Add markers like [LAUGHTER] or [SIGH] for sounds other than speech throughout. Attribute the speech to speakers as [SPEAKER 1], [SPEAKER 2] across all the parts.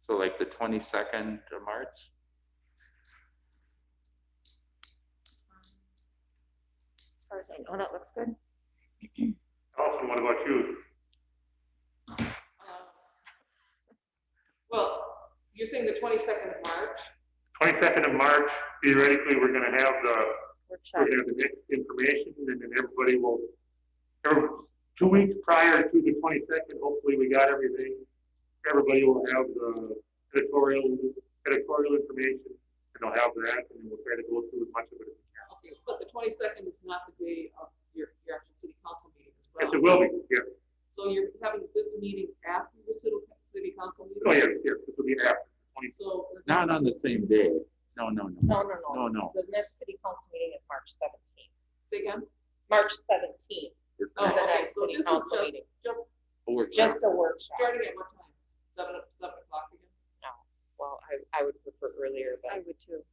[SPEAKER 1] So like the twenty-second of March?
[SPEAKER 2] As far as I know, that looks good.
[SPEAKER 3] Allison, what about you?
[SPEAKER 2] Uh,
[SPEAKER 4] Well, you're saying the twenty-second of March?
[SPEAKER 3] Twenty-second of March, theoretically, we're gonna have the, we're
[SPEAKER 2] Workshop.
[SPEAKER 3] gonna have the next information, and then everybody will, or two weeks prior to the twenty-second, hopefully, we got everything. Everybody will have the editorial, editorial information, and they'll have that, and we'll try to go through as much of it. as we
[SPEAKER 4] Okay, but the twenty-second is not the day of your, your actual city council meeting as
[SPEAKER 3] can.
[SPEAKER 4] well.
[SPEAKER 3] Yes, it will be, yes,
[SPEAKER 4] So you're having this meeting after the city, city council meeting?
[SPEAKER 3] oh, yes, yes, this will be after twenty-second.
[SPEAKER 4] So. uh,
[SPEAKER 1] Not on the same day. No, no, no.
[SPEAKER 2] No, no,
[SPEAKER 1] No, no.
[SPEAKER 2] no. The next city council meeting is March seventeenth.
[SPEAKER 4] Say again?
[SPEAKER 2] March seventeenth
[SPEAKER 1] It's
[SPEAKER 4] Oh,
[SPEAKER 1] not
[SPEAKER 2] is the
[SPEAKER 4] okay,
[SPEAKER 2] next
[SPEAKER 4] so
[SPEAKER 2] city
[SPEAKER 4] this is
[SPEAKER 2] council
[SPEAKER 4] just-
[SPEAKER 2] meeting.
[SPEAKER 4] Just
[SPEAKER 1] a workshop.
[SPEAKER 2] Just a workshop.
[SPEAKER 4] starting at what time? Seven, o- seven o'clock again?
[SPEAKER 2] Well, I, I would prefer earlier, but. I would too.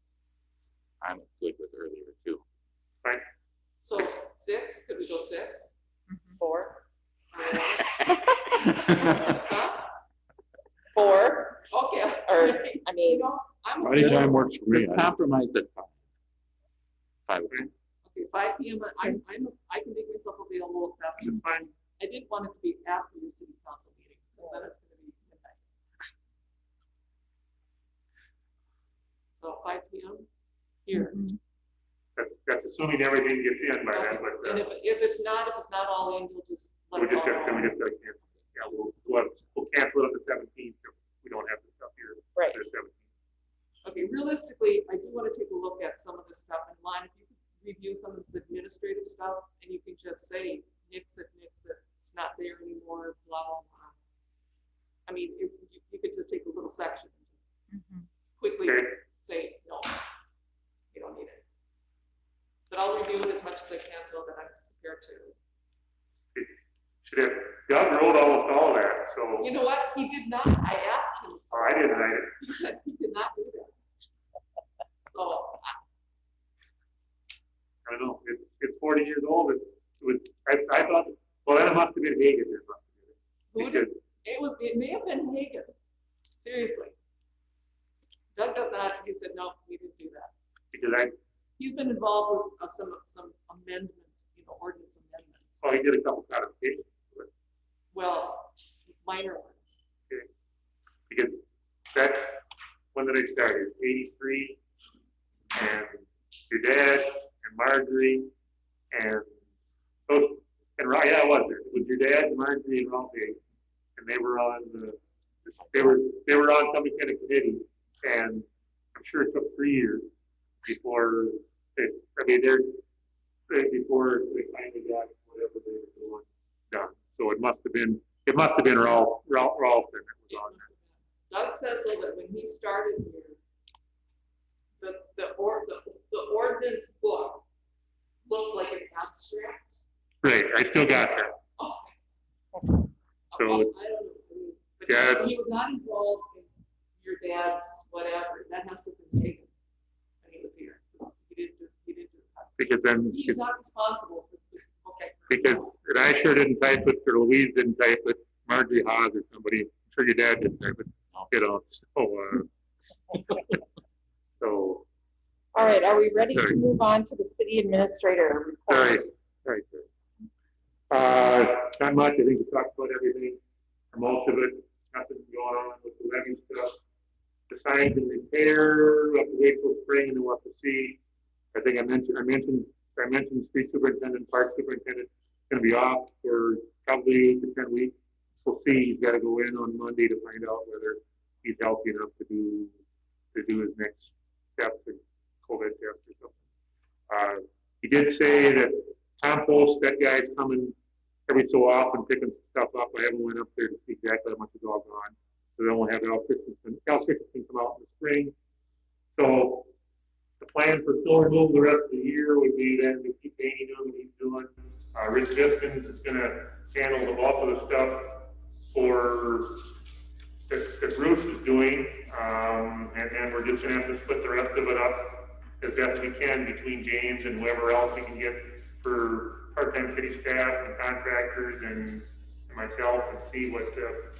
[SPEAKER 1] I'm good with earlier [LAUGHS] too.
[SPEAKER 4] So six, could we go six?
[SPEAKER 2] Four,
[SPEAKER 4] Huh?
[SPEAKER 2] four,
[SPEAKER 4] Okay.
[SPEAKER 2] or, I
[SPEAKER 4] [LAUGHS] You
[SPEAKER 2] [LAUGHS] mean,
[SPEAKER 4] know, I'm.
[SPEAKER 5] Anytime works for me.
[SPEAKER 1] Just Compromise at five. Five.
[SPEAKER 4] Okay, five P M, I'm, I'm, I can make myself available if that's just fine. I didn't want it to be after your city council meeting, because then it's gonna be midnight. So five P M here.
[SPEAKER 3] That's, that's assuming everything gets in by then, but, uh,
[SPEAKER 4] And if, if it's not, if it's not all in, you'll just let
[SPEAKER 3] we
[SPEAKER 4] us
[SPEAKER 3] just
[SPEAKER 4] all
[SPEAKER 3] got, we
[SPEAKER 4] know.
[SPEAKER 3] just got, yeah, we'll, we'll, we'll cancel it on the seventeenth, we don't have this up here.
[SPEAKER 2] right,
[SPEAKER 3] the 17th.
[SPEAKER 4] Okay, realistically, I do wanna take a look at some of this stuff in line, if you could review some of this administrative stuff, and you can just say, nix it, nix it, it's not there anymore, blah, blah, blah. I mean, if, you, you could just take a little section,
[SPEAKER 2] Mm-hmm.
[SPEAKER 4] quickly
[SPEAKER 3] Okay,
[SPEAKER 4] say, no, you don't need it. But I'll review it as much as I can, so that I'm prepared to,
[SPEAKER 3] should have, Doug wrote all, all that, so,
[SPEAKER 4] you know what, he did not, I asked him.
[SPEAKER 3] oh, I didn't, I,
[SPEAKER 4] He said he did not do that. So,
[SPEAKER 3] I don't know, it's, it's forty years old, it was, I, I thought, well, that must have been Hagan. that must have
[SPEAKER 4] who
[SPEAKER 3] been it.
[SPEAKER 4] did,
[SPEAKER 3] Because
[SPEAKER 4] it was, it may have been Hagan, seriously. Doug does not, he said, no, we didn't do that.
[SPEAKER 3] Because I,
[SPEAKER 4] He's been involved with uh, some, some amendments, you know, ordinance amendments,
[SPEAKER 3] so I oh, did a couple codifications,
[SPEAKER 4] well, minor ones.
[SPEAKER 3] because that's when that I started, eighty-three, and your dad, and Marjorie, and, those and, Ro- yeah, I was there, it was your dad, Marjorie, and Ralphie, and they were on the, they were, they were on some kind of committee, and I'm sure it took three years before, they I mean, they're, they- before they finally got whatever they were doing done, so it must have been, it must have been Ralph, Ralph, Ralph that was
[SPEAKER 4] It
[SPEAKER 3] on.
[SPEAKER 4] must have been. Doug Cecil, that when he started here, the, the or, the, the ordinance book looked like an abstract.
[SPEAKER 3] Great, I still got that.
[SPEAKER 4] Oh,
[SPEAKER 3] So-
[SPEAKER 4] I I don't know. But
[SPEAKER 3] Yeah,
[SPEAKER 4] He
[SPEAKER 3] it's-
[SPEAKER 4] was not involved in your dad's whatever, that has to have been taken when he was here. He didn't, do- he didn't. do that.
[SPEAKER 3] Because then,
[SPEAKER 4] He's not responsible for this, okay.
[SPEAKER 3] because and I sure didn't type it, or Louise didn't type it, Marjorie Haas or somebody, I'm sure your dad didn't type it, you know, so, uh. So,
[SPEAKER 2] all right, are we ready to
[SPEAKER 3] Sorry.
[SPEAKER 2] move on to the city administrator
[SPEAKER 3] all
[SPEAKER 2] report?
[SPEAKER 3] right, all right. good. Uh, not much, I think we talked about everything, or most of it, nothing going on with the levy stuff. The signs and repair, up to April spring, and then we'll have to see. I think I mentioned, I mentioned, I mentioned street superintendent, park superintendent, gonna be off for probably eight to ten weeks. We'll see, he's gotta go in on Monday to find out whether he's healthy enough to do, to do his next step, the COVID test or something. Uh, he did say that compost, that guy's coming every so often picking stuff up. I haven't went up there to see exactly how much is all gone. So then we'll have Al Christensen, Al Christensen come out in the spring. So the plan for snow removal the rest of the year would be then to keep painting doing what he's doing. Uh, Rich Viskins is gonna handle the bulk of the stuff for, that, that Bruce is doing. Um, and then we're just gonna have to split the rest of it up as best we can between James and whoever else we can get for part-time city staff and contractors and and myself and see what, uh,